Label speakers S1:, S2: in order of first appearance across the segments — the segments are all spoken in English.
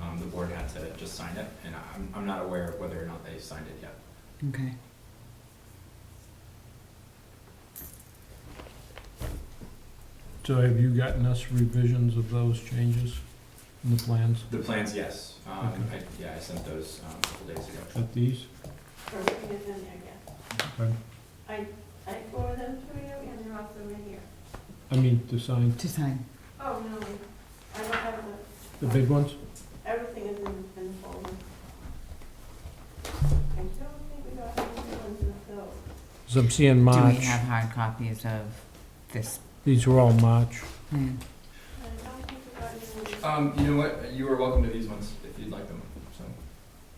S1: um, board had to just sign it, and I'm, I'm not aware of whether or not they signed it yet.
S2: Okay.
S3: So have you gotten us revisions of those changes in the plans?
S1: The plans, yes, um,
S3: Okay.
S1: I, yeah, I sent those, um, a couple days ago.
S3: At these?
S4: Everything is in there, yeah. I forwarded them to you, and they're also in here.
S3: I mean, to sign
S2: To sign.
S4: Oh, no, I don't have the,
S3: the big ones?
S4: everything is in, in the folder. I don't think we got any ones in the bill.
S3: As I'm seeing
S2: Do we
S3: March,
S2: have hard copies of this
S3: these are all March.
S2: plan?
S4: I don't think we got any, ones,
S1: Um, you know what, you are welcome to these ones if you'd like them, so,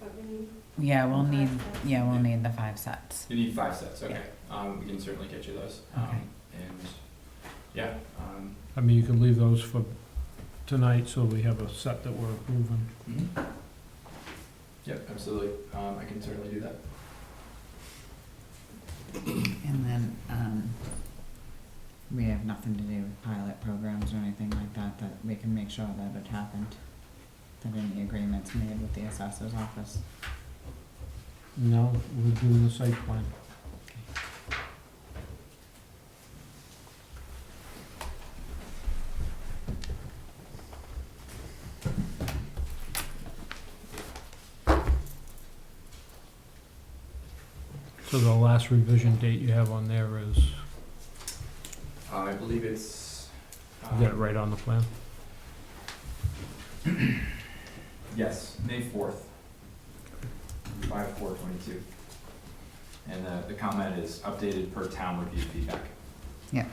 S4: but we need.
S2: Yeah, we'll need,
S4: five
S2: yeah, we'll need the five sets.
S1: you need five sets, okay, um, we can certainly get you those,
S2: Okay.
S1: um, and, yeah, um,
S3: I mean, you can leave those for tonight, so we have a set that we're approving.
S1: mhm. Yep, absolutely, um, I can certainly do that.
S2: And then, um, we have nothing to do with pilot programs or anything like that, that we can make sure that it happened. That any agreements made with the assessor's office.
S3: No, we're doing the site plan. So the last revision date you have on there is, is
S1: Uh, I believe it's,
S3: that
S1: um,
S3: right on the plan?
S1: Yes, May fourth. Five, four, twenty-two. And uh, the, the comment is updated per town review feedback.
S2: Yeah.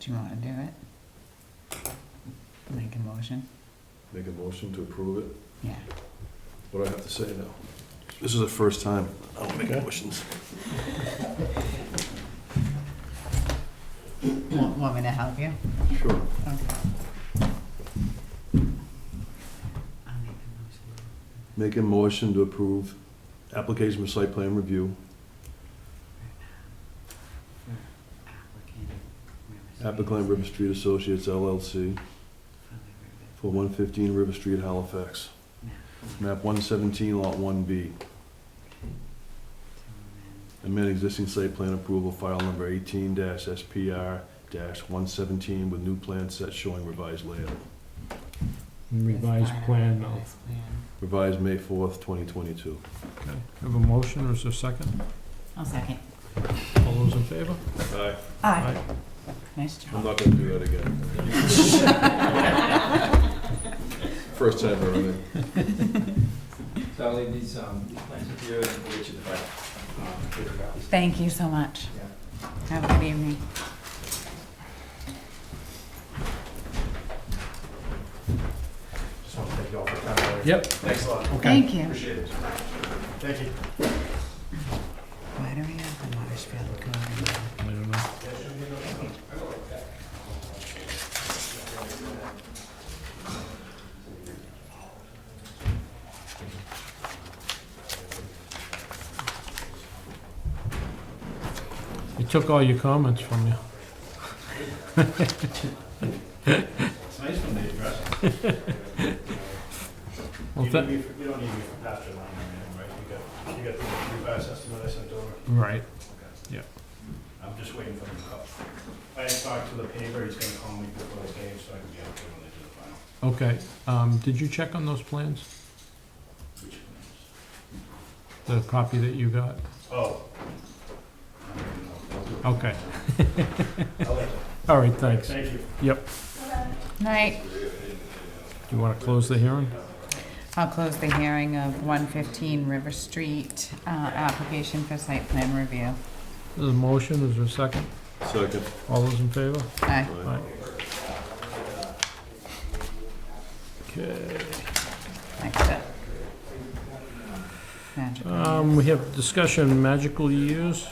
S2: Do you wanna do it? Make a motion?
S5: Make a motion to approve it.
S2: Yeah.
S5: What do I have to say now? This is the first time I don't make motions.
S2: Want, want me to help you?
S5: Sure.
S2: Okay. I'll make the motion.
S5: Make a motion to approve application for site plan review,
S2: Applicant. River
S5: applicant
S2: Street.
S5: River Street Associates LLC
S2: For the
S5: for 115 River Street, Halifax.
S2: river. Map.
S5: Map 117, Lot 1B. Amend existing site plan approval file number 18-SPR-117 with new plan set showing revised layout.
S3: Revised plan now.
S2: Revised plan.
S5: Revised May 4th, 2022.
S3: Okay. Have a motion, or is there a second?
S2: I'll second.
S3: All those in favor?
S5: Aye.
S2: Aye. Nice
S5: I'm
S2: job.
S5: not gonna do that again. First time ever.
S1: So I'll leave these, um, these plans with you and we'll get you the file. um, with the copies.
S2: Thank you so much.
S1: Yeah.
S2: Have a good evening.
S6: Just want to thank you all for coming.
S3: Yep.
S6: Thanks a lot.
S2: Thank you.
S6: Appreciate it. Thank you.
S2: Why do we have the Marshfield code in there?
S3: I don't know. It took all your comments from you.
S6: It's nice when they address it.
S3: Well,
S6: You
S3: tha-
S6: don't need me for- you don't need me for pasture land or anything, right? You got, you got the revised estimate I sent over?
S3: Right,
S6: Okay.
S3: Yeah.
S6: I'm just waiting for them to call. I had talked to the paper, he's gonna call me before the game, so I can be up there when they do the final.
S3: okay. Um, did you check on those plans?
S6: Which one
S3: The copy that you got?
S6: is- Oh. I don't even know. I'll do it.
S3: Okay.
S6: I'll let you.
S3: All right, thanks. Do
S6: Thank you.
S2: Night.
S3: you want to close the hearing?
S2: I'll close the hearing of 115 River Street, uh, application for site plan review.
S3: There's a motion, is there a second?
S5: Second.
S3: All those in favor?
S2: Aye.
S5: Aye.
S3: Aye. Okay,
S2: Next up. Magical.
S3: um, we have discussion magical years,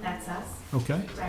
S4: That's us.
S3: okay?